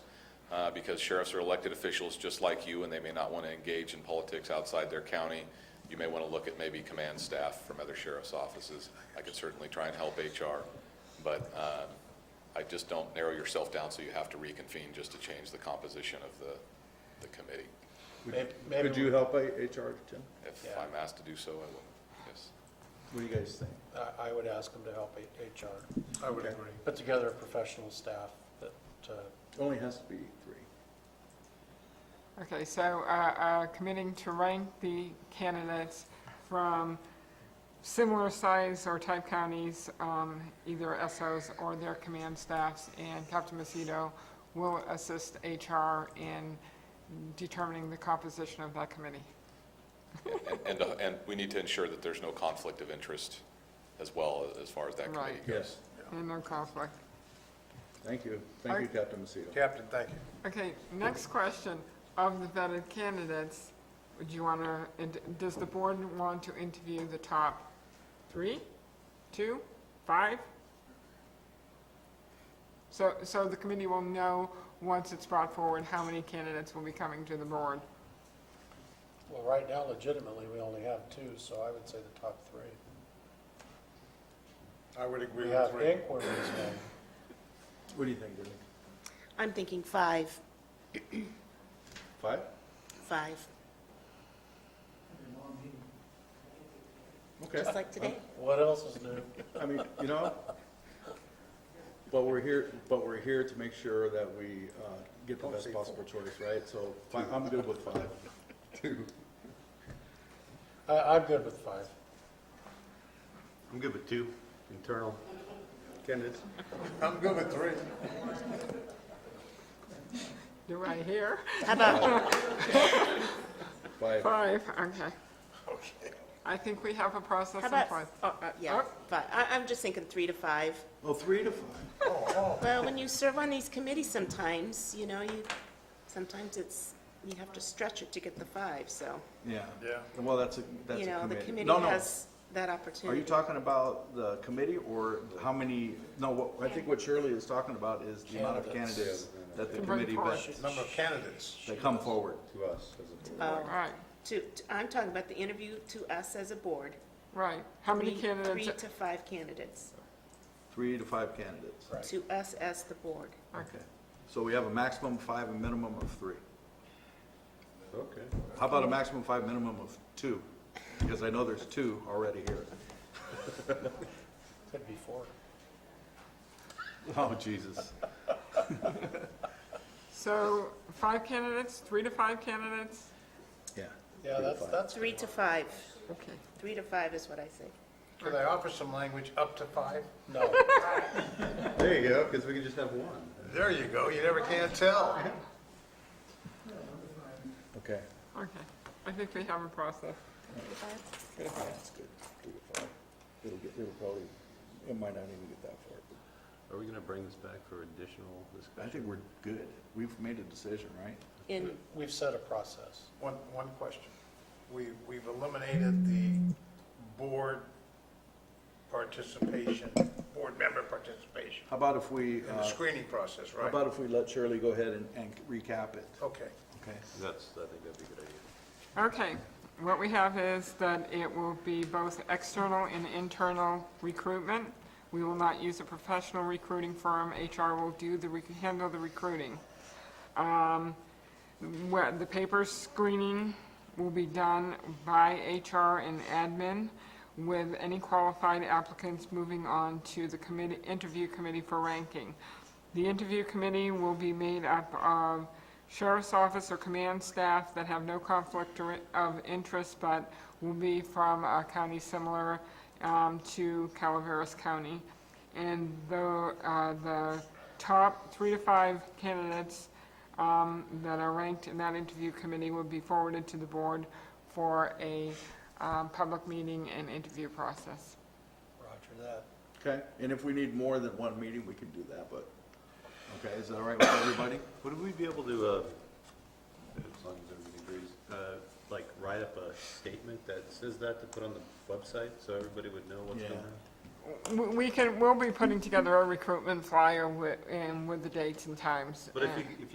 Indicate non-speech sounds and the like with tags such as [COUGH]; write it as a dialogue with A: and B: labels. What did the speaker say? A: uh, because sheriffs are elected officials just like you, and they may not want to engage in politics outside their county. You may want to look at maybe command staff from other sheriff's offices. I could certainly try and help HR, but um, I just don't narrow yourself down so you have to reconvene just to change the composition of the, the committee.
B: Maybe- maybe
C: Could you
B: we-
C: help A- HR, Tim?
A: If
B: Yeah.
A: I'm asked to do so, I will, yes.
C: What do you guys think?
B: I, I would ask them to help H- HR,
D: I would
C: Okay.
D: agree.
B: put together a professional staff that, uh,
C: Only has to be three.
E: Okay, so uh, uh, committing to rank the candidates from similar size or type counties, um, either SOs or their command staffs, and Captain Macedo will assist HR in determining the composition of that committee.
A: And- And, uh, and we need to ensure that there's no conflict of interest as well as far as that committee
E: Right.
A: goes.
C: Yes.
E: And no conflict.
C: Thank you. Thank you, Captain Macedo.
D: Captain, thank you.
E: Okay, next question. Of the vetted candidates, would you want to, does the board want to interview the top three, two, five? So, so the committee will know, once it's brought forward, how many candidates will be coming to the board?
B: well, right now legitimately, we only have two, so I would say the top three.
D: I would agree
B: We
D: with
B: have
D: three.
B: inquiries made.
C: What do you think, Denny?
F: I'm thinking five,
C: Five?
F: five,
C: Okay.
F: just like today.
B: What else is new?
C: I mean, you know, but we're here, but we're here to make sure that we uh, get the best possible choice, right? So fi- I'm good with five. Two.
B: I, I'm good with five.
G: I'm good with two internal candidates.
D: I'm good with three.
E: Do I hear? [LAUGHS]
F: How about, uh,
C: Five.
E: Five, okay. I think we have a process
F: how
E: in
F: about,
E: place.
F: oh, uh,
E: oh.
F: yeah, five. I, I'm just thinking three to five.
C: Oh, three to five.
F: Well, when you serve on these committees sometimes, you know, you, sometimes it's, you have to stretch it to get the five, so,
C: Yeah.
D: Yeah.
C: Well, that's a, that's a
F: you know, the
C: committee.
F: committee
C: No, no.
F: has that
C: Are you
F: opportunity.
C: talking about the committee or how many, no, what, I think what Shirley is talking about is the amount of
B: Candidates.
C: candidates that the
E: To bring
C: committee
E: forward.
C: vets,
D: Number of candidates.
C: that come forward.
G: To us as a board.
E: All Oh, right,
F: Um, To, to- I'm talking about the interview to us as a board.
E: right. How many
F: Three-
E: candidates?
F: Three to five candidates,
C: Three to five candidates.
B: Right.
F: to us as the board.
C: Okay. So we have a maximum of five, a minimum of three.
G: Okay.
C: How about a maximum of five, minimum of two? Because I know there's two already here.
B: Could be four.
C: Oh, Jesus.
E: So five candidates, three to five candidates?
C: Yeah.
B: Yeah, that's, that's,
F: Three to five,
E: Okay.
F: three to five is what I say.
D: Could I offer some language up to five?
B: no.
G: There you go, because we can just have one.
D: [LAUGHS] There you go, you never can tell.
C: Okay.
E: Okay, I think we have a process.
C: That's good. Three to five. It'll get, it'll probably, it might not even get that far. but
G: Are we going to bring this back for additional
C: I
G: discussion?
C: think we're good. We've made a decision, right?
F: In,
B: We've set a process.
D: One, one question. We, we've eliminated the board participation, board member participation
C: How about if we,
D: in
C: uh,
D: the screening process,
C: how
D: right?
C: about if we let Shirley go ahead and, and recap it?
D: Okay.
C: Okay.
G: That's, I think that'd be a good idea.
E: Okay, what we have is that it will be both external and internal recruitment. We will not use a professional recruiting firm. HR will do the, rec- handle the recruiting. where the paper screening will be done by HR and admin with any qualified applicants moving on to the committee, interview committee for ranking. The interview committee will be made up of sheriff's office or command staff that have no conflict or- of interest, but will be from a county similar um, to Calaveras County. And the, uh, the top three to five candidates um, that are ranked in that interview committee will be forwarded to the board for a um, public meeting and interview process.
B: Roger that.
C: Okay, and if we need more than one meeting, we can do that, but, okay, is that all right with everybody?
G: Would we be able to, uh, as long as everybody agrees, uh, like write up a statement that says that to put on the website so everybody would know what's
C: Yeah.
G: going on?
E: We- We can, we'll be putting together a recruitment flyer with, and with the dates and times.
G: But if
E: and-
G: you, if